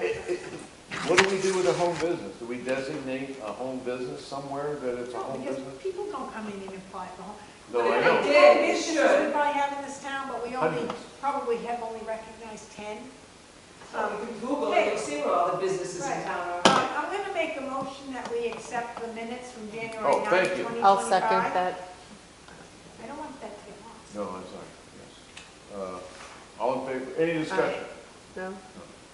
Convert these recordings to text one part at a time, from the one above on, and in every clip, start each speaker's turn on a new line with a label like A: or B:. A: it- it- What do we do with a home business? Do we designate a home business somewhere that it's a
B: No,
A: home
B: because
A: business?
B: people don't come in and apply for home.
A: No,
B: But
A: I
B: if
A: know.
B: they
C: Yeah, they
B: businesses
C: should.
B: We probably have in this town, but we only,
A: Hundreds.
B: probably have only recognized ten.
C: Um,
B: Um,
C: you can Google it, you'll see what all the businesses in
B: Right.
C: town are.
B: I- Uh, I'm going to make a motion that we accept the minutes from January
A: Oh,
B: 9th,
A: thank you.
B: 2025.
D: I'll second that.
B: I don't want that to get lost.
A: No, I'm sorry, yes. Uh, All in favor, any discussion?
D: No?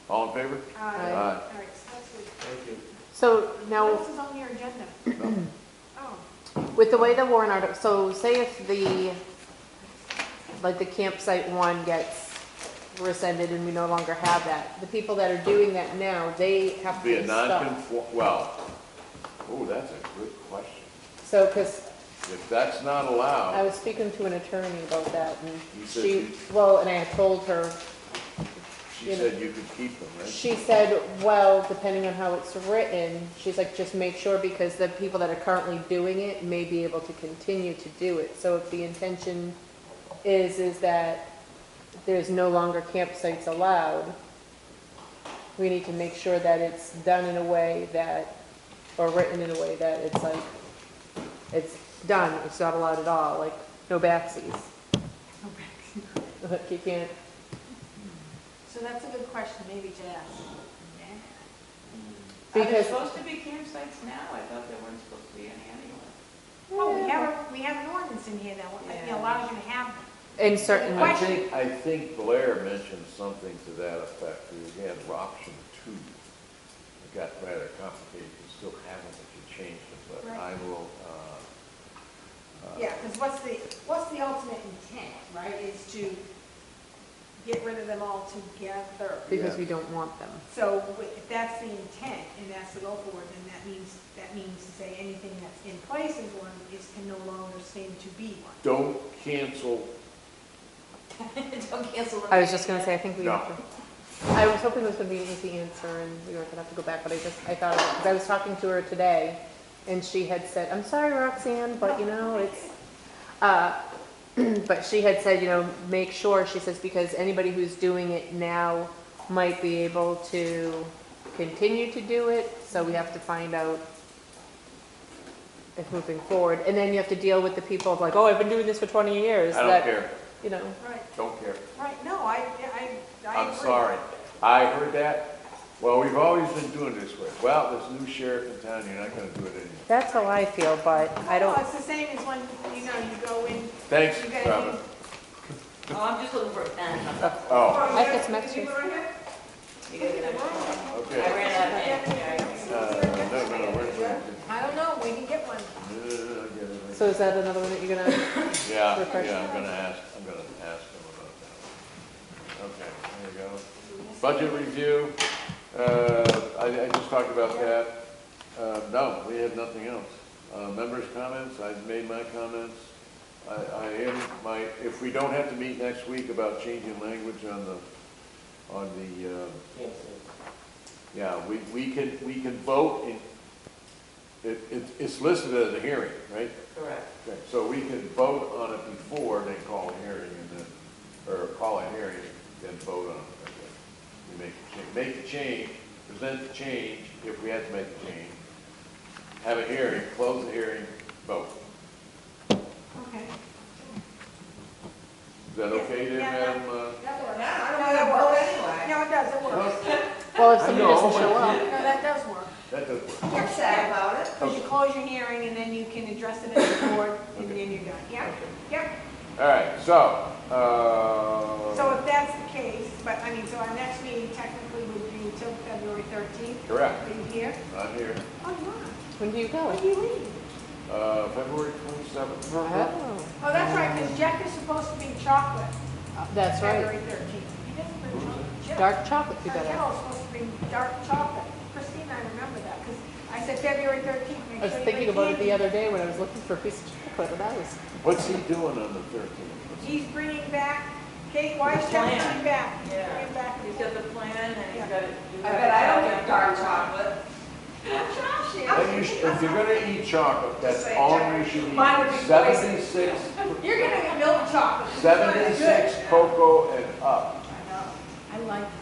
A: All in favor?
B: All right,
A: Aye.
B: Uh, all right, so that's what-
A: Thank you.
D: So
B: What
D: now,
B: else is on your agenda? Oh,
D: with the way the warrant article, so say if the, like the campsite one gets rescinded and we no longer have that, the people that are doing that now, they have to
A: Be
D: be
A: a
D: stopped.
A: non-conform, well, oh, that's a good question.
D: So, because
A: If that's not
D: I
A: allowed,
D: was speaking to an attorney about that and
A: You said
D: she,
A: you-
D: well, and I had told her,
A: she said you could keep them, right?
D: She said, well, depending on how it's written, she's like, just make sure because the people that are currently doing it may be able to continue to do it. So if the intention is, is that there's no longer campsites allowed, we need to make sure that it's done in a way that, or written in a way that it's like, it's done, it's not allowed at all, like, no backsies.
B: okay.
D: Like, you can't,
B: So that's a good question, maybe to ask.
C: Are there
D: Because-
C: supposed to be campsites now? I thought there weren't supposed to be any anyway.
B: Well, we have, a- we have an ordinance in here that you know, allows you to have them.
D: in certain
A: I
D: ways.
A: think, I think Blair mentioned something to that effect, we had option two. It got rather complicated, you still haven't, if you changed it, but I
B: Right.
A: will, uh, uh,
B: Yeah, because what's the, what's the ultimate intent, right, is to get rid of them all together.
D: Because
A: Yeah.
D: we don't want them.
B: So if that's the intent and that's the goal for it, then that means, that means to say anything that's in place as one is can no longer seem to be one.
A: Don't cancel,
C: Don't cancel them.
D: I was just gonna say, I think we
A: No.
D: have to, I was hoping this would be an easy answer and we weren't gonna have to go back, but I just, I thought, because I was talking to her today and she had said, I'm sorry Roxanne, but you know, it's, uh, but she had said, you know, make sure, she says, because anybody who's doing it now might be able to continue to do it, so we have to find out if moving forward. And then you have to deal with the people of like, oh, I've been doing this for twenty years.
A: I don't
D: that,
A: care,
D: You know.
B: Right,
A: don't care.
B: right, no, I, I, I agree.
A: I'm sorry. I heard that. Well, we've always been doing this way. Well, this new sheriff in town, you're not gonna do it anymore.
D: That's how I feel, but I
B: No,
D: don't,
B: It's the same as when, you know, you go in,
A: Thanks,
B: You guys
A: Robin.
C: Oh, I'm just looking for a pen.
A: Oh,
D: I guess Mexican-
C: You were in here? You gotta get out. I
A: okay.
C: ran out of pen.
A: Uh, no, no, no, where's my-
B: I don't know, we can get one.
A: Uh, I get it.
D: so is that another one that you're gonna,
A: Yeah,
D: refresh.
A: yeah, I'm gonna ask, I'm gonna ask him about that. one. Okay, there we go. Budget review, uh, I, I just talked about that. Uh, no, we have nothing else. Uh, members' comments, I've made my comments. I, I am, my, if we don't have to meet next week about changing language on the, on the, um, yeah, we, we can, we can vote in, it, it's- it's listed as a hearing, right?
C: Correct.
A: Okay, so we could vote on it before they call a hearing and then, or call a hearing, then vote on it. okay. We make the change, make the change, present the change, if we have to make a change, have a hearing, close the hearing, vote.
B: Okay.
A: Is that okay then,
B: Yeah, yeah.
A: Madam? uh,
B: That works.
C: Yeah, I don't wanna vote anyway.
B: No, it does, it works.
D: well, if
A: I
D: somebody
A: know.
D: doesn't show up,
B: No, that does work.
A: That does work.
C: I'm sad about it.
B: Because you close your hearing and then you can address it as a board and
A: Okay.
B: then you're done. Yep,
A: Okay.
B: yep.
A: All right, so, uh.
B: So if that's the case, but I mean, so our next meeting technically would be until February 13th.
A: Correct,
B: Are you here?
A: I'm here,
B: Oh, you are.
D: when do you go?
B: When do you leave?
A: uh, February twenty-seventh.
D: Oh,
B: Oh, that's right, because Jack is supposed to be chocolate.
D: Uh, that's
B: February
D: right,
B: 13th. He doesn't bring chocolate.
D: dark chocolate, you
B: Our
D: better.
B: kennel's supposed to bring dark chocolate. Christine, I remember that because I said February 13th.
D: I
B: make
D: was
B: sure you bring
D: thinking about it the
B: candy.
D: other day when I was looking for a piece of chocolate, and I was,
A: What's he doing on the thirteenth?
B: He's bringing back, Kate Weiss,
C: The plan.
B: bringing back,
C: Yeah.
B: bringing back.
C: He's got the plan and he's got it. you
E: I
C: have
E: bet
C: it.
E: I don't get dark chocolate.
A: Then you should- If you're gonna eat chocolate, that's
E: Say
A: all
E: chocolate.
A: you should
E: Mine would
A: eat.
E: be
A: Seventy-six,
E: You're gonna get milk chocolate.
A: seventy-six cocoa and up.
B: I like